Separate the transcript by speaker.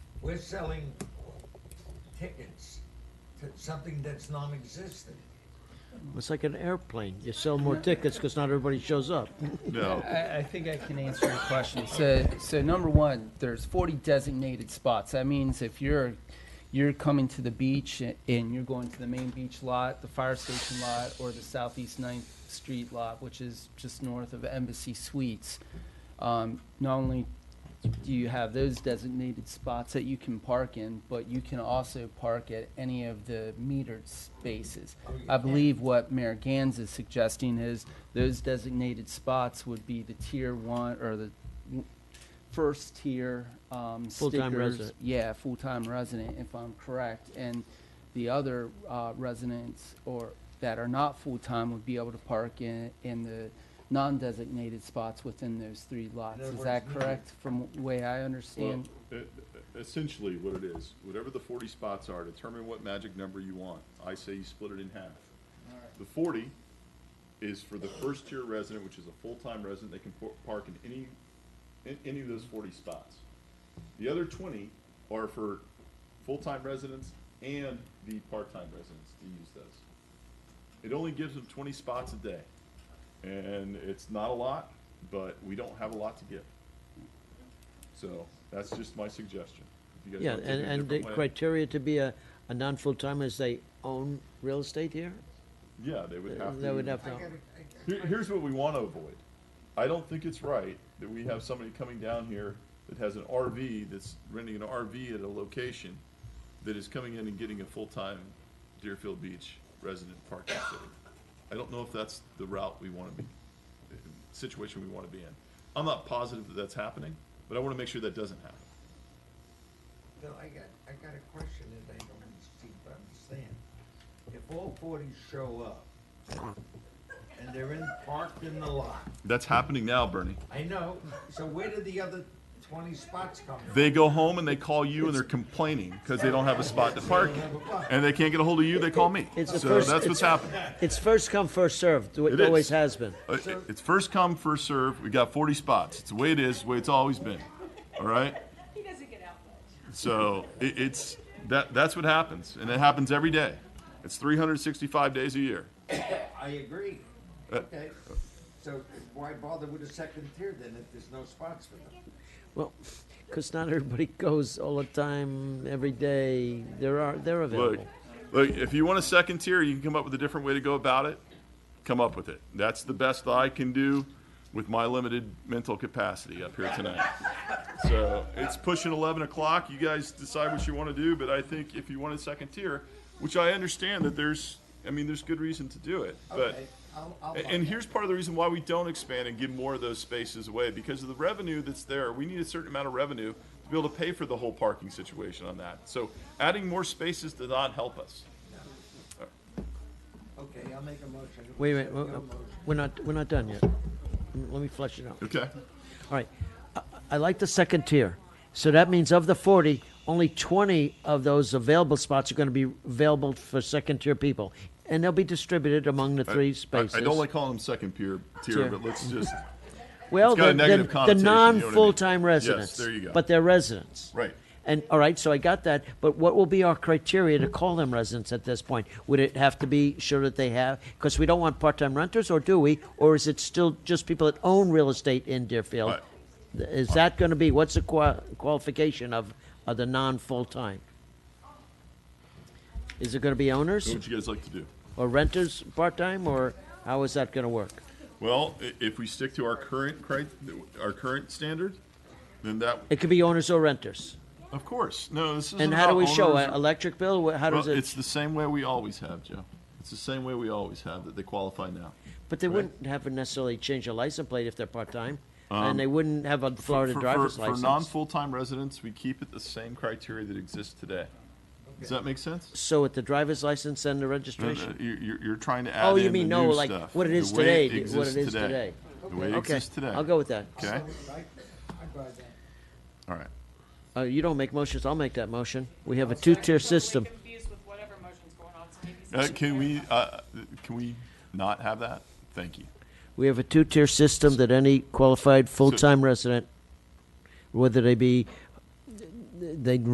Speaker 1: We're selling tickets to something that's non-existent.
Speaker 2: It's like an airplane. You sell more tickets because not everybody shows up.
Speaker 3: No.
Speaker 4: I, I think I can answer your question. So, so number one, there's 40 designated spots. That means if you're, you're coming to the beach and you're going to the main beach lot, the fire station lot, or the southeast Ninth Street lot, which is just north of Embassy Suites, um, not only do you have those designated spots that you can park in, but you can also park at any of the metered spaces. I believe what Mayor Gans is suggesting is those designated spots would be the tier one or the w- first tier um, stickers.
Speaker 2: Full-time resident.
Speaker 4: Yeah, full-time resident, if I'm correct. And the other uh, residents or that are not full-time would be able to park in, in the non-designated spots within those three lots.
Speaker 1: other
Speaker 4: Is
Speaker 1: words,
Speaker 4: that
Speaker 1: metered.
Speaker 4: correct? from the way I
Speaker 3: Well,
Speaker 4: understand.
Speaker 3: e- essentially what it is, whatever the forty spots are, determine what magic number you want. I say you split it in half. The forty is for the first tier resident, which is a full-time resident, they can por- park in any, in any of those forty spots. The other twenty are for full-time residents and the part-time residents to use those. It only gives them twenty spots a day, and it's not a lot, but we don't have a lot to give. So that's just my suggestion. If you guys
Speaker 2: Yeah,
Speaker 3: wanna take
Speaker 2: and,
Speaker 3: it a
Speaker 2: and the
Speaker 3: different way-
Speaker 2: criteria to be a, a non-full-timer is they own real estate here?
Speaker 3: Yeah, they would have to.
Speaker 2: They would have
Speaker 1: I
Speaker 2: to,
Speaker 1: gotta- I-
Speaker 3: Here, here's what we want to avoid. I don't think it's right that we have somebody coming down here that has an RV, that's renting an RV at a location, that is coming in and getting a full-time Deerfield Beach resident parking city. I don't know if that's the route we want to be, uh, situation we want to be in. I'm not positive that that's happening, but I want to make sure that doesn't happen.
Speaker 1: Bill, I got, I got a question that I don't seem to understand. If all forty show up and they're in, parked in the lot,
Speaker 3: That's happening now, Bernie.
Speaker 1: I know, so where did the other twenty spots come from?
Speaker 3: They go home and they call you and they're complaining because they don't have a spot to park. And they can't get a hold of you, they call me.
Speaker 2: It's the
Speaker 3: So
Speaker 2: first-
Speaker 3: that's what's
Speaker 2: it's-
Speaker 3: happening.
Speaker 2: it's first come, first served, the way
Speaker 3: It
Speaker 2: it
Speaker 3: is.
Speaker 2: always has been.
Speaker 3: Uh, It's first come, first serve. We got 40 spots. It's the way it is, the way it's always been. All right?
Speaker 5: He doesn't get out much.
Speaker 3: So it, it's that that's what happens, and it happens every day. It's 365 days a year.
Speaker 1: I agree.
Speaker 3: Uh,
Speaker 1: Okay, so why bother with a second tier then if there's no spots for them?
Speaker 2: Well, because not everybody goes all the time, every day. There are, they're
Speaker 3: Look,
Speaker 2: available.
Speaker 3: look, if you want a second tier, you can come up with a different way to go about it. Come up with it. That's the best I can do with my limited mental capacity up here tonight. So it's pushing 11 o'clock. You guys decide what you want to do, but I think if you want a second tier, which I understand that there's, I mean, there's good reason to do it, but.
Speaker 1: Okay, I'll, I'll.
Speaker 3: A- And here's part of the reason why we don't expand and give more of those spaces away, because of the revenue that's there, we need a certain amount of revenue to be able to pay for the whole parking situation on that. So adding more spaces does not help us.
Speaker 1: Okay, I'll make a motion.
Speaker 2: Wait a minute,
Speaker 1: No
Speaker 2: we're-
Speaker 1: motion.
Speaker 2: we're not, we're not done yet. Let me flesh it out.
Speaker 3: Okay.
Speaker 2: All right. I- I like the second tier. So that means of the 40, only 20 of those available spots are going to be available for second tier people. And they'll be distributed among the three spaces.
Speaker 3: I don't like calling them second tier, tier,
Speaker 2: Tier.
Speaker 3: but let's just,
Speaker 2: well,
Speaker 3: it's got
Speaker 2: the-
Speaker 3: a negative
Speaker 2: the, the
Speaker 3: connotation, you know what I mean?
Speaker 2: non full time
Speaker 3: Yes,
Speaker 2: residents.
Speaker 3: there you go.
Speaker 2: But they're residents.
Speaker 3: Right.
Speaker 2: And all right, so I got that. But what will be our criteria
Speaker 3: Hmm.
Speaker 2: to call them residents at this point? Would it have to be sure that they have? Because we don't want part time renters, or do we? Or is it still just people that own real estate in Deerfield?
Speaker 3: Right.
Speaker 2: Th- Is that going to be what's the qua- qualification of, of the non full time? Is it going to be owners
Speaker 3: what you guys like to do.
Speaker 2: or renters part time, or how is that going to work?
Speaker 3: Well, i- if we stick to our current cri, our current standard, then that,
Speaker 2: It could be owners or renters.
Speaker 3: of course, no, this isn't
Speaker 2: And how do
Speaker 3: about
Speaker 2: we show
Speaker 3: owners
Speaker 2: an
Speaker 3: or-
Speaker 2: electric bill? Wh- How does
Speaker 3: Well,
Speaker 2: it?
Speaker 3: it's the same way we always have, Joe. It's the same way we always have, that they qualify now.
Speaker 2: But they
Speaker 3: Right.
Speaker 2: wouldn't have to necessarily change a license plate if they're part-time, and they wouldn't have a Florida
Speaker 3: Um, for, for-
Speaker 2: driver's
Speaker 3: for
Speaker 2: license.
Speaker 3: non-full-time residents, we keep it the same criteria that exists today. Does that make sense?
Speaker 2: so at the driver's license and the
Speaker 3: No,
Speaker 2: registration.
Speaker 3: no, You're, you're- you're trying to add
Speaker 2: Oh, you
Speaker 3: in the
Speaker 2: mean, no,
Speaker 3: new
Speaker 2: like,
Speaker 3: stuff,
Speaker 2: what it
Speaker 3: the
Speaker 2: is
Speaker 3: way
Speaker 2: today,
Speaker 3: it
Speaker 2: the- what
Speaker 3: exists
Speaker 2: it is today.
Speaker 3: The way it
Speaker 2: okay,
Speaker 3: exists today.
Speaker 2: I'll go with that.
Speaker 3: Okay,
Speaker 1: I, I buy that.
Speaker 3: all right.
Speaker 2: Uh, you don't make motions. I'll make that motion. We have a two-tier system.
Speaker 5: Totally confused with whatever motion's going on, so maybe.
Speaker 3: Uh,
Speaker 5: something
Speaker 3: can we,
Speaker 5: clarify.
Speaker 3: uh, can we not have that? Thank you.
Speaker 2: We have a two-tier system that any qualified full-time resident, whether they be they